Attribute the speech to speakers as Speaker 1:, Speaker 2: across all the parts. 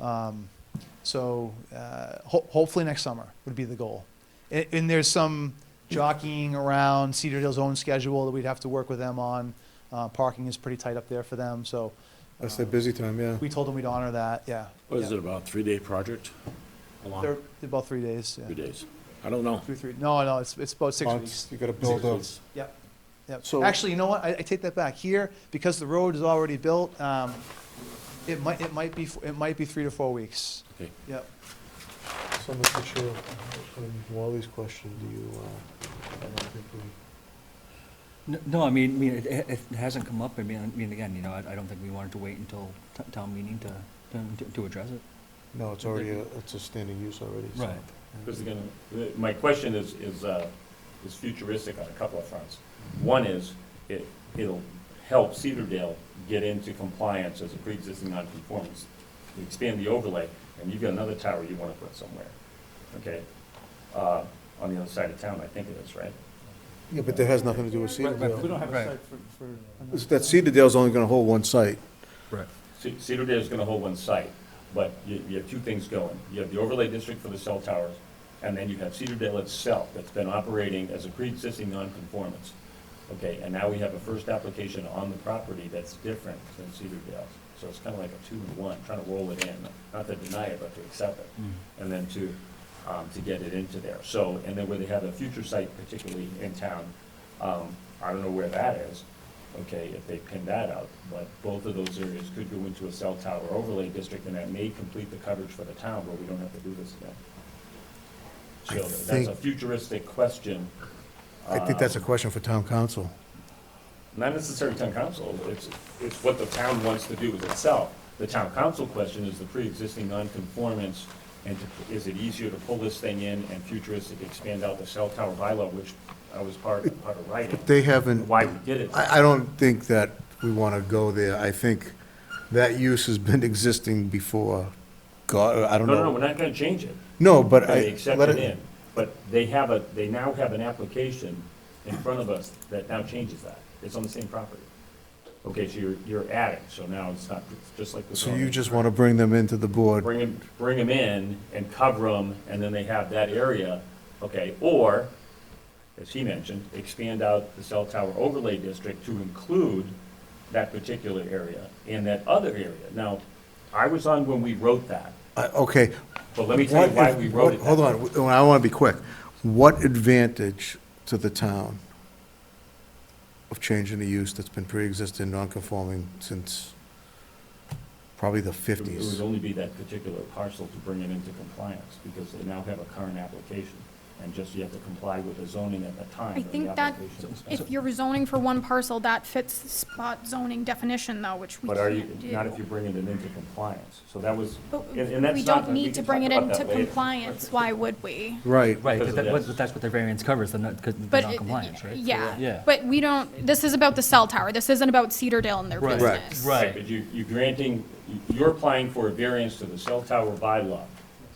Speaker 1: Um, so uh, ho- hopefully next summer would be the goal. And, and there's some jockeying around Cedar Hill's own schedule that we'd have to work with them on. Uh, parking is pretty tight up there for them, so
Speaker 2: That's that busy time, yeah.
Speaker 1: we told them we'd honor that. Yeah.
Speaker 3: What is
Speaker 1: yeah.
Speaker 3: it, about a three-day project? How long?
Speaker 1: They're, they're about three days. Yeah.
Speaker 3: Three days? I don't know.
Speaker 1: Two, three. No, no, it's, it's about six
Speaker 2: Oh,
Speaker 1: weeks.
Speaker 2: it's- You gotta build up.
Speaker 1: Yep, yep.
Speaker 2: So-
Speaker 1: Actually, you know what, I, I take that back. Here, because the road is already built, um, it might, it might be, it might be three to four weeks.
Speaker 3: Okay.
Speaker 1: Yep.
Speaker 2: So Mr. Chair, on Wally's question, do you, uh, I don't think we,
Speaker 4: N- No, I mean, I mean, it, it it hasn't come up, I mean, I mean, again, you know, I, I don't think we wanted to wait until t- town meeting to, to, to address it.
Speaker 2: no, it's already, a- it's a standing use already. so-
Speaker 4: Right.
Speaker 5: Because again, the- my question is, is, uh, is futuristic on a couple of fronts. One is, it, it'll help Cedardale get into compliance as a pre-existing non-conformance. You expand the overlay, and you've got another tower you wanna put somewhere, okay? Uh, on the other side of town, I think it is, right?
Speaker 2: Yeah, but that has nothing to do with Cedardale.
Speaker 4: don't have a Right. site
Speaker 1: for,
Speaker 2: It's That Cedardale's only gonna hold one site.
Speaker 4: Right.
Speaker 5: Ce- Cedardale's gonna hold one site, but you, you have two things going. You have the overlay district for the cell towers, and then you have Cedardale itself that's been operating as a pre-existing nonconformance. Okay, and now we have a first application on the property that's different than Cedardale's. So it's kinda like a two-in-one, trying to roll it in, not to deny it, but to accept it and then to, um, to get it into there. So, and then where they have a future site particularly in town, um, I don't know where that is, okay, if they pin that out, but both of those areas could go into a cell tower overlay district, and that may complete the coverage for the town, where we don't have to do this again.
Speaker 2: I
Speaker 5: So that's a
Speaker 2: think-
Speaker 5: futuristic question,
Speaker 2: I think that's a question for town council.
Speaker 5: not necessarily town council, it's, it's what the town wants to do with itself. The town council question is the pre-existing non-conformance, and to- is it easier to pull this thing in and futuristic expand out the cell tower bylaw, which I was part, part of writing,
Speaker 2: They haven't,
Speaker 5: why we did it.
Speaker 2: I, I don't think that we wanna go there. I think that use has been existing before, God, I don't
Speaker 5: No,
Speaker 2: know.
Speaker 5: no, no, we're not gonna change it.
Speaker 2: No, but I.
Speaker 5: They accept
Speaker 2: let
Speaker 5: it in, but they have a, they now have an application in front of us that now changes that. It's on the same property. Okay, so you're, you're adding, so now it's not, it's just like the.
Speaker 2: So you
Speaker 5: zoning.
Speaker 2: just wanna bring them into the board?
Speaker 5: bring them, bring 'em in and cover them, and then they have that area, okay? Or, as he mentioned, expand out the cell tower overlay district to include that particular area and that other area. Now, I was on when we wrote that,
Speaker 2: I- Uh, Okay.
Speaker 5: but let me tell you
Speaker 2: What
Speaker 5: why
Speaker 2: if-
Speaker 5: we wrote it.
Speaker 2: Hold
Speaker 5: that
Speaker 2: on,
Speaker 5: way.
Speaker 2: w- I want to be quick. What advantage to the town of changing the use that's been pre-existing, non-conforming since probably the
Speaker 5: It would- It would
Speaker 2: fifties?
Speaker 5: only be that particular parcel to bring it into compliance, because they now have a current application, and just you have to comply with the zoning at the time.
Speaker 6: I
Speaker 5: of the
Speaker 6: think that
Speaker 5: application and stuff.
Speaker 6: If you're zoning for one parcel, that fits the spot zoning definition though, which we
Speaker 5: But are you,
Speaker 6: can't do.
Speaker 5: not if you're bringing it into compliance, so that was,
Speaker 6: But
Speaker 5: and, and that's
Speaker 6: we
Speaker 5: not-
Speaker 6: don't need
Speaker 5: can
Speaker 6: to bring
Speaker 5: talk
Speaker 6: it
Speaker 5: about that
Speaker 6: into
Speaker 5: later.
Speaker 6: compliance, why would we?
Speaker 2: Right.
Speaker 4: Right,
Speaker 5: Because
Speaker 4: but
Speaker 5: of
Speaker 4: that,
Speaker 5: this.
Speaker 4: but that's what the variance covers, the not, because the
Speaker 6: But, it-
Speaker 4: non-compliance, right?
Speaker 6: yeah,
Speaker 4: Yeah.
Speaker 6: but we don't, this is about the cell tower, this isn't about Cedardale and their
Speaker 4: Right.
Speaker 2: Correct.
Speaker 6: business.
Speaker 4: Right.
Speaker 5: But you, you granting, you're applying for a variance to the cell tower bylaw,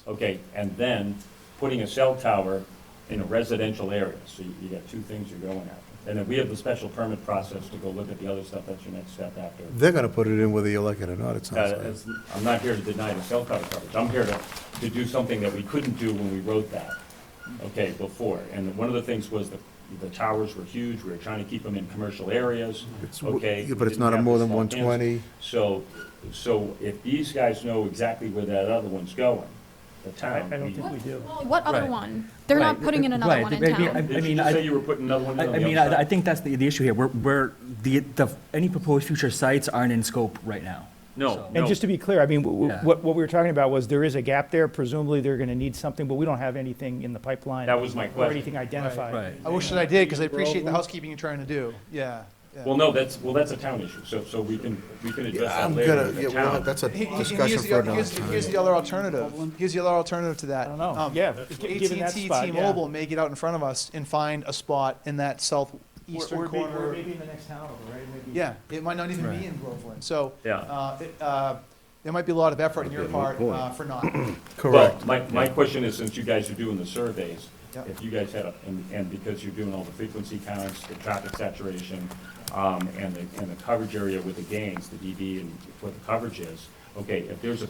Speaker 5: okay, and then putting a cell tower in a residential area, so you, you got two things you're going after. And then we have the special permit process to go look at the other stuff, that's your next step after.
Speaker 2: They're going to put it in whether you like it or not, it
Speaker 5: Uh,
Speaker 2: sounds like.
Speaker 5: it's- I'm not here to deny the cell tower coverage, I'm here to, to do something that we couldn't do when we wrote that, okay, before. And one of the things was the, the towers were huge, we were trying to keep them in commercial areas,
Speaker 2: It's w-
Speaker 5: okay?
Speaker 2: yeah,
Speaker 5: we
Speaker 2: But it's
Speaker 5: didn't
Speaker 2: not a
Speaker 5: have
Speaker 2: more
Speaker 5: the
Speaker 2: than
Speaker 5: small
Speaker 2: one
Speaker 5: hands.
Speaker 2: twenty.
Speaker 5: So, so if these guys know exactly where that other one's going, the town. I don't think we do.
Speaker 6: What other
Speaker 4: Right.
Speaker 6: one? They're not
Speaker 4: Right,
Speaker 6: putting in another
Speaker 4: right,
Speaker 6: one in
Speaker 4: maybe I-
Speaker 6: town.
Speaker 5: Did you
Speaker 4: mean,
Speaker 5: just
Speaker 4: I-
Speaker 5: say you were putting another one
Speaker 4: I,
Speaker 5: in
Speaker 4: I
Speaker 5: on the
Speaker 4: mean,
Speaker 5: other
Speaker 4: I, I
Speaker 5: side?
Speaker 4: think that's the, the issue here, where, where the, the, any proposed future sites aren't in scope right now.
Speaker 5: No,
Speaker 4: So-
Speaker 5: no.
Speaker 7: And just to be clear, I mean, w-
Speaker 4: Yeah.
Speaker 7: w- what, what we were talking about was there is a gap there, presumably they're gonna need something, but we don't have anything in the pipeline.
Speaker 5: That was my
Speaker 7: Or
Speaker 5: question.
Speaker 7: anything identified.
Speaker 4: Right,
Speaker 1: I wish that I did, because I appreciate the housekeeping you're trying to do, yeah. yeah.
Speaker 5: Well, no, that's, well, that's a town issue, so, so we can, we can address that
Speaker 2: I'm
Speaker 5: later
Speaker 2: gonna,
Speaker 5: with
Speaker 2: yeah,
Speaker 5: the
Speaker 2: well,
Speaker 5: town.
Speaker 2: that's a
Speaker 1: He- he- and
Speaker 2: discussion
Speaker 1: here's the
Speaker 2: for
Speaker 1: oth-
Speaker 2: another
Speaker 1: here's-
Speaker 2: time.
Speaker 1: Here's the other alternative, here's the other alternative to that.
Speaker 7: I don't know.
Speaker 1: Um,
Speaker 7: Yeah,
Speaker 1: if
Speaker 7: gi- given that
Speaker 1: AT&T,
Speaker 7: spot, yeah.
Speaker 1: T-Mobile may get out in front of us and find a spot in that southeastern corner.
Speaker 7: in the next town, right?
Speaker 1: Yeah, it might not even be in Groveland, so.
Speaker 5: Yeah.
Speaker 1: uh, it, uh, There might be a lot of effort on your part uh, for not.
Speaker 2: Correct.
Speaker 5: Well, my, my question is, since you guys are doing the surveys,
Speaker 1: Yeah.
Speaker 5: if you guys had, a- and, and because you're doing all the frequency counts, the traffic saturation, E um, and the, and the coverage area with the gains, the dB and what the coverage is, okay, if there's a